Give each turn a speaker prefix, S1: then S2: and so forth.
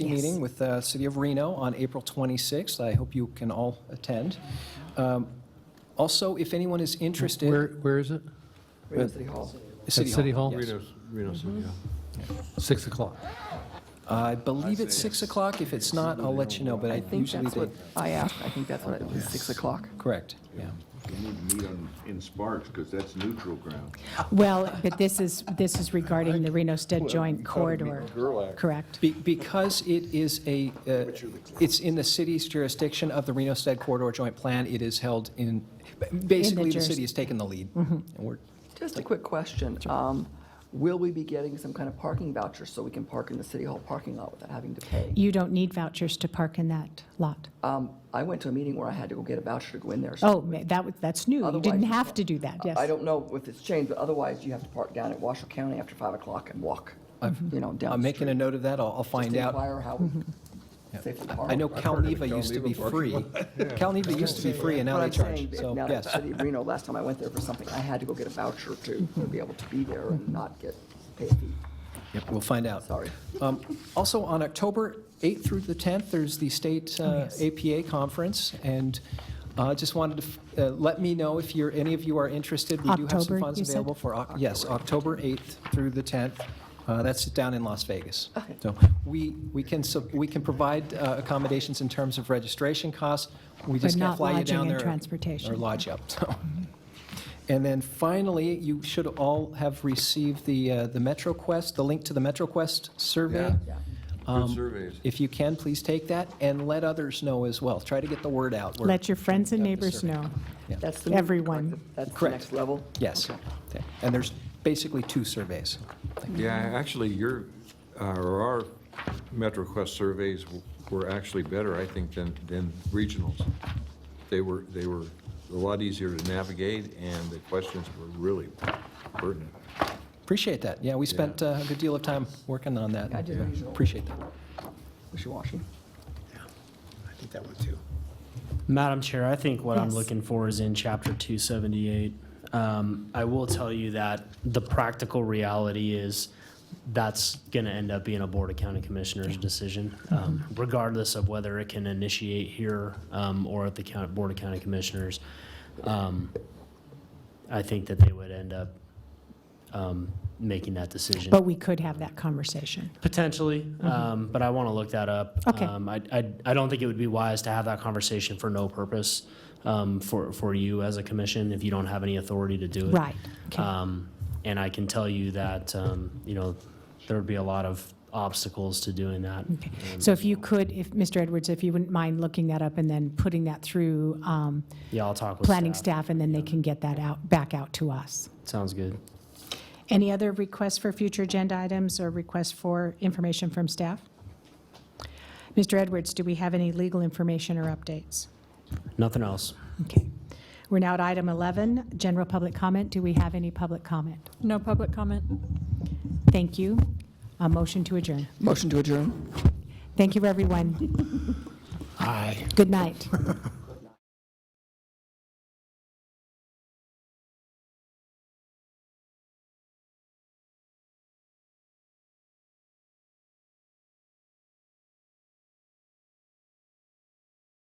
S1: meeting with the City of Reno on April 26th. I hope you can all attend. Um, Also, if anyone is
S2: Where,
S1: interested,
S2: where is it?
S3: Reno City Hall.
S2: At City Hall?
S1: yes.
S4: Reno, Reno City Hall.
S2: 6 o'clock.
S1: I believe it's 6 o'clock. If it's not, I'll let you know, but
S3: I
S1: I
S3: think
S1: usually
S3: that's
S1: they...
S3: what I asked. I think that's what it was, 6 o'clock.
S1: Correct, yeah.
S5: We need to meet on, in Sparks, because that's neutral ground.
S6: Well, but this is, this is regarding the Reno-Stead Joint Corridor. Correct.
S1: Be- Because it is a, uh, it's in the city's jurisdiction of the Reno-Stead Corridor Joint Plan, it is held in, basically, the
S6: juris-
S1: city has taken the lead.
S3: Mm-hmm.
S1: And we're,
S3: Just a quick question. Um, Will we be getting some kind of parking voucher so we can park in the City Hall parking lot without having to pay?
S6: You don't need vouchers to park in that lot.
S3: Um, I went to a meeting where I had to go get a voucher to go in there. so-
S6: Oh, ma- that, was- that's new. You didn't
S3: Otherwise-
S6: have to do that, yes.
S3: I don't know if it's changed, but otherwise you have to park down at Washoe County after 5 o'clock and walk, you know,
S1: I'm
S3: down the street.
S1: making a note of that, I'll I'll find
S3: Just
S1: out.
S3: inquire how we safely park.
S1: I know
S4: heard of
S1: Calneva
S4: the
S1: used to be
S4: Calneva parking
S1: free. Calneva used to be free, and now
S3: But
S1: they
S3: I'm saying,
S1: charge,
S3: if
S1: so,
S3: now that
S1: yes.
S3: City of Reno, last time I went there for something, I had to go get a voucher to to be able to be there and not get paid.
S1: Yep, We'll find out.
S3: Sorry.
S1: Um, Also, on October 8th through the 10th, there's the state uh, APA conference, and I just wanted to, f- uh, let me know if you're, any of you are interested. We do have some
S6: October,
S1: funds
S6: you said?
S1: available for, Oc- yes, October 8th through the 10th. Uh, That's down in Las Vegas.
S3: Okay.
S1: So we, we can, sub- we can provide uh, accommodations in terms of registration costs. We just can't
S6: not
S1: fly you
S6: lodging
S1: down
S6: and
S1: there.
S6: transportation.
S1: Or lodge you up, so. And then finally, you should all have received the, uh, the MetroQuest, the link to the MetroQuest survey.
S4: Yeah.
S1: Um,
S4: Good surveys.
S1: If you can, please take that and let others know as well. Try to get the word out. We're-
S6: Let your friends and
S1: We've got the
S6: neighbors
S1: survey.
S6: know.
S3: That's the. new-
S6: Everyone.
S3: correct? That's the
S1: Correct.
S3: next level?
S1: Yes. Okay. And there's basically two surveys.
S4: Yeah, actually, your, uh, or our MetroQuest surveys w- were actually better, I think, than, than regionals. They were, they were a lot easier to navigate, and the questions were really pertinent.
S1: Appreciate that. Yeah, we spent uh, a good deal of time working on that.
S3: I did
S1: Yeah.
S3: regional.
S1: Appreciate that.
S3: Wishy-washy.
S7: I think that one too.
S8: Madam Chair, I think what I'm
S6: Yes.
S8: looking for is in chapter two seventy-eight. Um, I will tell you that the practical reality is that's gonna end up being a Board of County Commissioners decision, um, regardless of whether it can initiate here, um, or at the county, Board of County Commissioners. Um, I think that they would end up, um, making that decision.
S6: But we could have that conversation.
S8: Potentially, um, but I want to look that up.
S6: Mm-hmm. Okay.
S8: Um, I, I, I don't think it would be wise to have that conversation for no purpose, um, for, for you as a commission if you don't have any authority to do it.
S6: Right, okay.
S8: Um, and I can tell you that, um, you know, there would be a lot of obstacles to doing that.
S6: Okay. So if you could, if, Mr. Edwards, if you wouldn't mind looking that up and then putting that through um,
S8: Yeah, I'll talk with
S6: planning staff, and then they can get that out, back out to us.
S8: Sounds good.
S6: Any other requests for future agenda items or requests for information from staff? Mr. Edwards, do we have any legal information or updates?
S8: Nothing else.
S6: Okay. We're now at item 11, general public comment. Do we have any public comment?
S9: No public comment.
S6: Thank you. A motion to adjourn.
S3: Motion to adjourn?
S6: Thank you, everyone.
S7: Aye.
S6: Good night.